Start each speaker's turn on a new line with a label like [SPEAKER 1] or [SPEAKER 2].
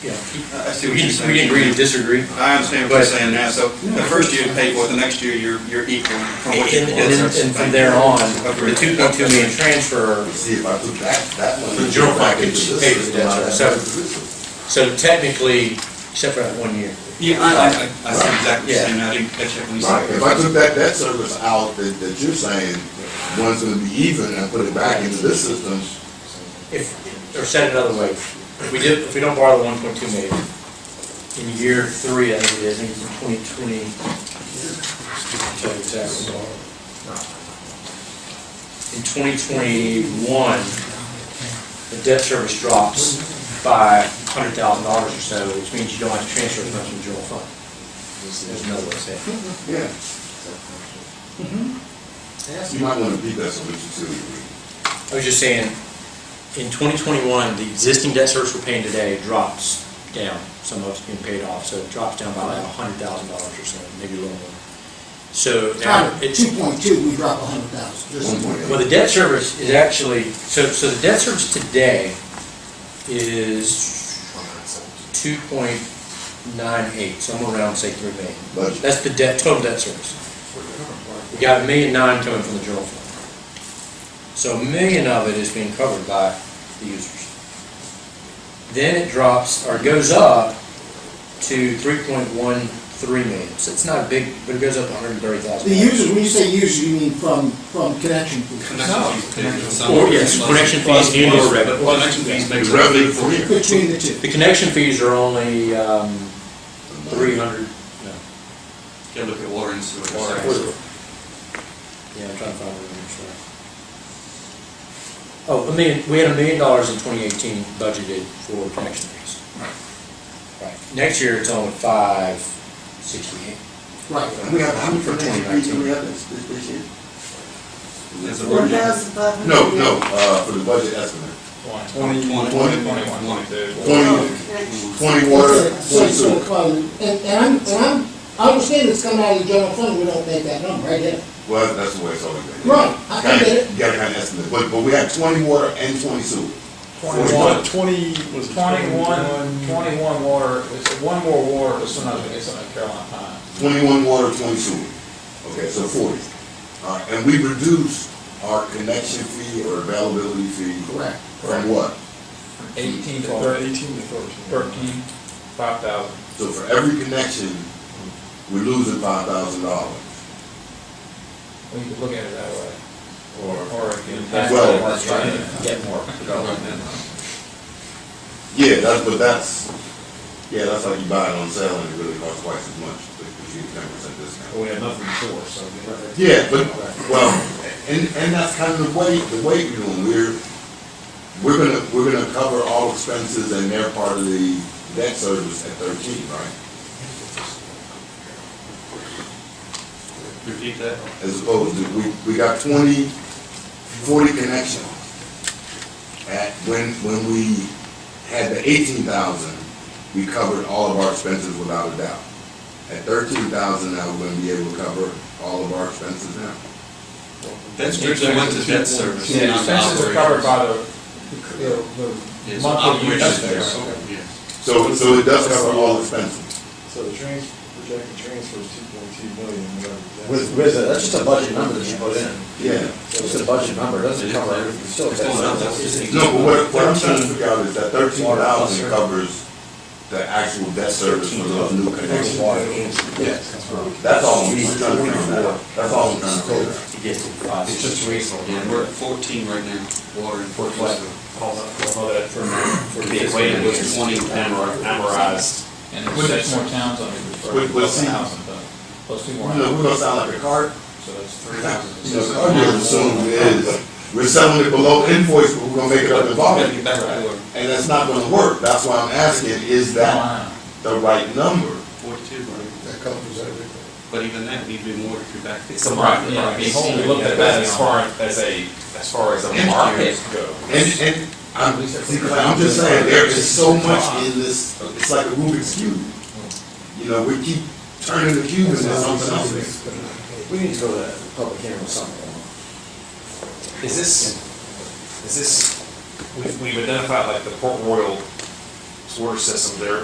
[SPEAKER 1] Yeah.
[SPEAKER 2] I see
[SPEAKER 1] We
[SPEAKER 2] what you're
[SPEAKER 1] can,
[SPEAKER 2] saying.
[SPEAKER 1] we can agree to disagree.
[SPEAKER 2] I understand what you're
[SPEAKER 1] But-
[SPEAKER 2] saying now, so the first year you pay for it, the next year you're, you're equal from
[SPEAKER 1] And,
[SPEAKER 2] what you.
[SPEAKER 1] and, and and from there on, the two point two million transfer,
[SPEAKER 3] See, if I put that, that one.
[SPEAKER 4] The general package
[SPEAKER 1] paid for that, so- so technically, except for that one year.
[SPEAKER 2] Yeah, I, I, I see exactly what
[SPEAKER 1] Yeah.
[SPEAKER 2] you're saying, I didn't catch that when you
[SPEAKER 3] Right,
[SPEAKER 2] said.
[SPEAKER 3] if I took that debt service out that, that you're saying, one's gonna be even and put it back into this system,
[SPEAKER 1] If, or said another way, if we did, if we don't borrow the one point two million, in year three, I think it is, I think it's in twenty twenty. tell you exactly. In twenty twenty-one, the debt service drops by hundred thousand dollars or so, which means you don't have to transfer as much in general fund. There's another way to say it.
[SPEAKER 3] yeah. You might wanna beat that solution too.
[SPEAKER 1] I was just saying, in 2021, the existing debt service we're paying today drops down. Some of it's being paid off, so it drops down by like $100,000 or so, maybe a little more. So now, it's,
[SPEAKER 5] Two point two, we drop a hundred thousand, just.
[SPEAKER 3] One point
[SPEAKER 1] well, the debt service is actually, so, so the debt service today is 2.98, so I'm gonna round, say 3 million.
[SPEAKER 3] Budget.
[SPEAKER 1] That's the debt, total debt service. We got a million nine coming from the general fund. So a million of it is being covered by the users. Then it drops, or goes up to three point one three million. So it's not a big, but it goes up hundred and thirty thousand.
[SPEAKER 5] The users, when you say users, you mean from, from connection fees.
[SPEAKER 1] Or, yes, connection fees and or revenue.
[SPEAKER 2] Connection fees makes.
[SPEAKER 3] The revenue from here.
[SPEAKER 5] Between the two.
[SPEAKER 1] The connection fees are only, um, three hundred, no.
[SPEAKER 2] Yeah, look at water and sewer.
[SPEAKER 1] Yeah, I'm trying
[SPEAKER 2] so-
[SPEAKER 1] to find where I'm sorry. Oh, a million, we had a million dollars in twenty eighteen budgeted for connection fees. Right. Next year, it's only five sixty-eight.
[SPEAKER 5] Right.
[SPEAKER 1] We have how many for twenty nineteen?
[SPEAKER 3] have this, this year?
[SPEAKER 2] There's a-
[SPEAKER 6] One thousand five hundred?
[SPEAKER 3] No, no, uh, for the budget estimate,
[SPEAKER 2] Twenty, twenty,
[SPEAKER 3] Twenty.
[SPEAKER 2] twenty-one, twenty-two.
[SPEAKER 3] twenty, twenty water,
[SPEAKER 5] Oh, So,
[SPEAKER 3] twenty
[SPEAKER 5] so,
[SPEAKER 3] sewer.
[SPEAKER 5] um, and, and I'm, and I'm, I understand it's coming out of the general fund, we don't make that number, I get it.
[SPEAKER 3] Well, that's the way it's always been.
[SPEAKER 5] Right, I can get it.
[SPEAKER 3] You gotta kind of estimate, but, but we have twenty water and twenty sewer.
[SPEAKER 7] Twenty-one, twenty, was it
[SPEAKER 8] Twenty-one, twenty-one water, it's one more water, but sometimes it's on Carolina Pine.
[SPEAKER 3] Twenty-one water, twenty sewer. Okay, so forty. All right, and we reduced our connection fee or availability fee.
[SPEAKER 5] Correct.
[SPEAKER 3] From what?
[SPEAKER 8] Eighteen to
[SPEAKER 7] Or
[SPEAKER 8] thirteen,
[SPEAKER 7] eighteen to thirteen.
[SPEAKER 8] thirteen, five thousand.
[SPEAKER 3] So for every connection, we're losing five thousand dollars.
[SPEAKER 8] Well, you could look at it that way.
[SPEAKER 3] Or,
[SPEAKER 8] Or if you.
[SPEAKER 3] Well,
[SPEAKER 8] That's right.
[SPEAKER 1] Get more.
[SPEAKER 3] yeah, that's, but that's, yeah, that's like you buy it on sale and it really costs twice as much, because you get ten percent discount.
[SPEAKER 8] We have nothing for, so.
[SPEAKER 3] Yeah, but, well, and, and that's kind of the way, the way we're doing, we're, we're gonna, we're gonna cover all expenses and they're part of the debt service at thirteen, right?
[SPEAKER 2] Repeat that.
[SPEAKER 3] As opposed to, we, we got twenty, forty connections. At, when, when we had the eighteen thousand, we covered all of our expenses without a doubt. At thirteen thousand, now we're gonna be able to cover all of our expenses now.
[SPEAKER 2] That's strictly went to debt service.
[SPEAKER 8] Yeah,
[SPEAKER 2] not
[SPEAKER 8] expenses are
[SPEAKER 2] operating.
[SPEAKER 8] covered by the, the,
[SPEAKER 2] Yeah,
[SPEAKER 8] the
[SPEAKER 2] so
[SPEAKER 8] monthly
[SPEAKER 2] operations
[SPEAKER 8] usage.
[SPEAKER 2] there, so, yeah.
[SPEAKER 3] So, so it does cover all expenses.
[SPEAKER 7] So the trans, projected transfer is two point two million, whatever.
[SPEAKER 4] With, with, a- that's just a budget number that you put in.
[SPEAKER 3] Yeah.
[SPEAKER 4] It's just a budget number, it doesn't cover everything, It's still. a
[SPEAKER 2] It's going up, that's just-
[SPEAKER 4] debt.
[SPEAKER 3] No, but what, what I'm trying to figure out is that thirteen thousand covers the actual debt service for those new connections.
[SPEAKER 4] Yes.
[SPEAKER 3] That's all I'm trying to figure out. That's all I'm trying to figure out.
[SPEAKER 1] To get to five.
[SPEAKER 4] It's just reasonable.
[SPEAKER 2] Yeah, we're at fourteen right now, water and.
[SPEAKER 4] Fourteen.
[SPEAKER 1] For, for this.
[SPEAKER 2] Wait, it was twenty.
[SPEAKER 8] And there's six more towns on it.
[SPEAKER 3] Wait, wait, see.
[SPEAKER 8] Plus two more.
[SPEAKER 3] You know, we're gonna
[SPEAKER 8] houses.
[SPEAKER 3] sound like a card,
[SPEAKER 8] So that's three
[SPEAKER 3] you
[SPEAKER 8] houses.
[SPEAKER 3] know, card dealers assume is, we're selling it below invoice, but we're gonna make it up
[SPEAKER 2] Gotta
[SPEAKER 3] in
[SPEAKER 2] get
[SPEAKER 3] volume.
[SPEAKER 2] back to work.
[SPEAKER 3] And that's not gonna work. That's why I'm asking, is that
[SPEAKER 8] Carolina.
[SPEAKER 3] the right number?
[SPEAKER 2] Forty-two, right?
[SPEAKER 5] That covers everything.
[SPEAKER 2] But even that, need to be more if you're back.
[SPEAKER 8] Right, yeah, I mean, when we looked at that as far as a, as far as a market
[SPEAKER 3] And,
[SPEAKER 8] goes.
[SPEAKER 3] and, I'm, I'm just saying, there is so much in this, it's like a Rubik's cube. You know, we keep turning the cube into something else.
[SPEAKER 4] We need to go to a public hearing or something.
[SPEAKER 9] Is this, is this,
[SPEAKER 8] We've, we've identified like the Port Royal sewer system, there